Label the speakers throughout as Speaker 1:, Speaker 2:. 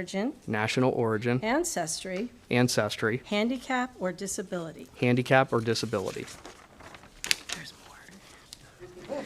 Speaker 1: origin,
Speaker 2: national origin,
Speaker 1: ancestry,
Speaker 2: ancestry,
Speaker 1: handicap, or disability.
Speaker 2: handicap, or disability.
Speaker 1: There's more.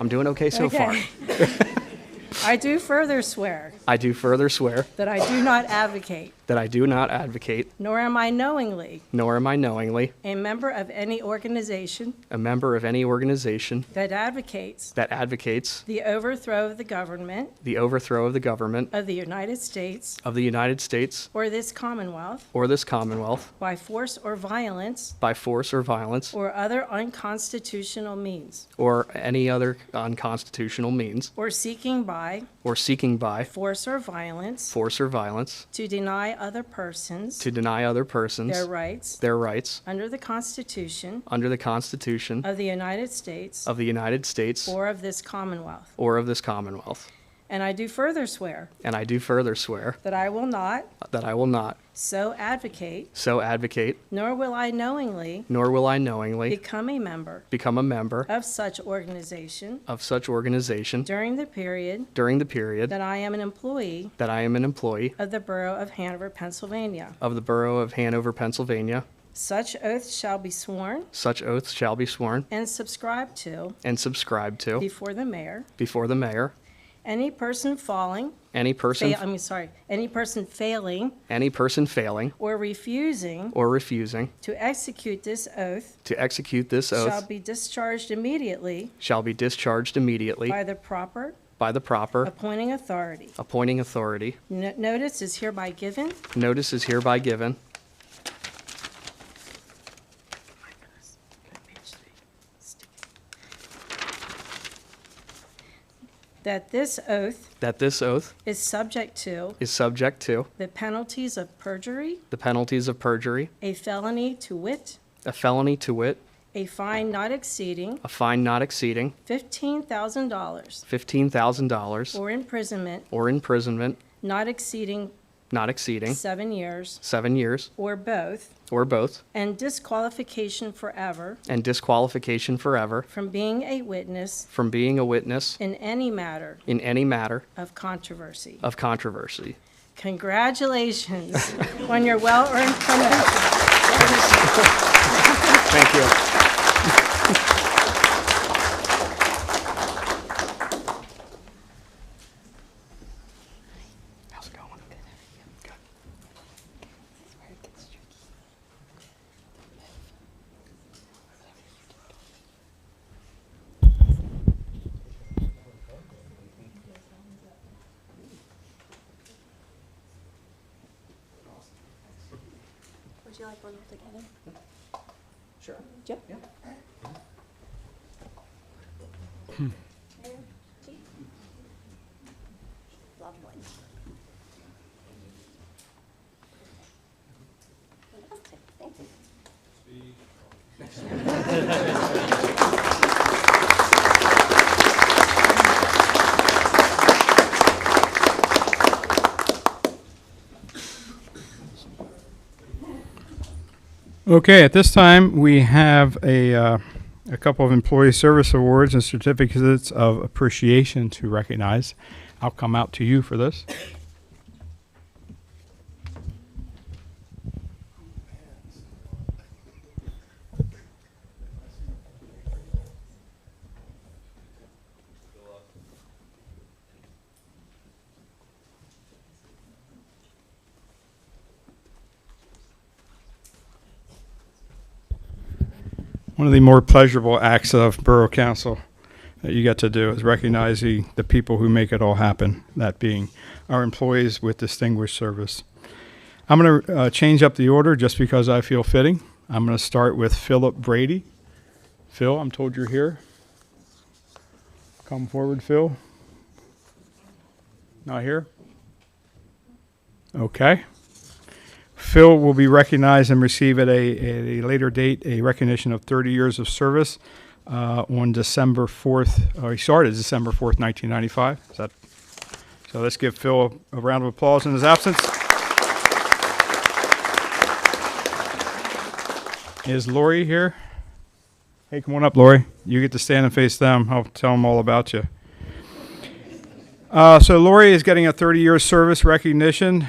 Speaker 2: I'm doing okay so far.
Speaker 1: Okay. I do further swear
Speaker 2: I do further swear
Speaker 1: that I do not advocate,
Speaker 2: that I do not advocate,
Speaker 1: nor am I knowingly,
Speaker 2: nor am I knowingly,
Speaker 1: a member of any organization
Speaker 2: a member of any organization
Speaker 1: that advocates
Speaker 2: that advocates
Speaker 1: the overthrow of the government
Speaker 2: the overthrow of the government
Speaker 1: of the United States
Speaker 2: of the United States
Speaker 1: or this Commonwealth
Speaker 2: or this Commonwealth
Speaker 1: by force or violence
Speaker 2: by force or violence
Speaker 1: or other unconstitutional means,
Speaker 2: or any other unconstitutional means,
Speaker 1: or seeking by
Speaker 2: or seeking by
Speaker 1: force or violence
Speaker 2: force or violence
Speaker 1: to deny other persons
Speaker 2: to deny other
Speaker 1: their
Speaker 2: persons
Speaker 1: rights
Speaker 2: their rights
Speaker 1: under the Constitution
Speaker 2: under the Constitution
Speaker 1: of the United States
Speaker 2: of the United States
Speaker 1: uh, or of this Commonwealth.
Speaker 2: or of this Commonwealth.
Speaker 1: And I do further swear
Speaker 2: And I do further swear
Speaker 1: that I will not
Speaker 2: that I will not
Speaker 1: so advocate,
Speaker 2: so advocate,
Speaker 1: nor will I knowingly
Speaker 2: nor will I knowingly
Speaker 1: become a member
Speaker 2: become a member
Speaker 1: of such organization
Speaker 2: of such organization
Speaker 1: during the period
Speaker 2: during the period
Speaker 1: that I am an employee
Speaker 2: that I am an employee
Speaker 1: of the Borough of Hanover, Pennsylvania.
Speaker 2: of the Borough of Hanover, Pennsylvania.
Speaker 1: Such oath shall be sworn
Speaker 2: Such oaths shall be sworn
Speaker 1: and subscribed to
Speaker 2: and subscribed to
Speaker 1: before the mayor.
Speaker 2: before the mayor.
Speaker 1: Any person falling,
Speaker 2: Any person,
Speaker 1: fail, I mean, sorry, any person failing
Speaker 2: any person failing
Speaker 1: or refusing
Speaker 2: or refusing
Speaker 1: to execute this oath
Speaker 2: to execute this
Speaker 1: shall
Speaker 2: oath
Speaker 1: be discharged immediately
Speaker 2: shall be discharged immediately
Speaker 1: by the proper
Speaker 2: by the proper
Speaker 1: appointing authority.
Speaker 2: appointing authority.
Speaker 1: No- Notice is hereby given.
Speaker 2: Notice is hereby given.
Speaker 1: That this oath
Speaker 2: That this oath
Speaker 1: is subject to
Speaker 2: is subject to
Speaker 1: the penalties of perjury,
Speaker 2: the penalties of perjury,
Speaker 1: a felony to wit,
Speaker 2: a felony to wit,
Speaker 1: a fine not exceeding
Speaker 2: a fine not exceeding
Speaker 1: $15,000
Speaker 2: $15,000
Speaker 1: or imprisonment
Speaker 2: or imprisonment
Speaker 1: not exceeding
Speaker 2: not exceeding
Speaker 1: seven years
Speaker 2: seven years
Speaker 1: or both,
Speaker 2: or both,
Speaker 1: and disqualification forever
Speaker 2: and disqualification forever
Speaker 1: from being a witness
Speaker 2: from being a witness
Speaker 1: in any matter
Speaker 2: in any matter
Speaker 1: of controversy.
Speaker 2: of controversy.
Speaker 1: Congratulations on your well-earned promotion.
Speaker 2: Thank you. How's it going? Good.
Speaker 3: Would you like one together?
Speaker 2: Sure.
Speaker 3: Yeah. Loved one. Fantastic, thank you.
Speaker 4: Okay, at this time, we have a, uh, a couple of employee service awards and certificates of appreciation to recognize. I'll come out to you for this. One of the more pleasurable acts of Borough Council that you get to do is recognize the, the people who make it all happen, that being our employees with distinguished service. I'm going to uh, change up the order just because I feel fitting. I'm going to start with Philip Brady. Phil, I'm told you're here. Come forward, Phil. Not here? Okay. Phil will be recognized and receive at a, at a later date a recognition of 30 years of service uh, on December 4th. Or he started December 4th, 1995. Is that, so let's give Phil a, a round of applause in his absence. Is Lori here? Hey, come on up, Lori. You get to stand and face them. I'll tell them all about you. Uh, so Lori is getting a 30-year service recognition.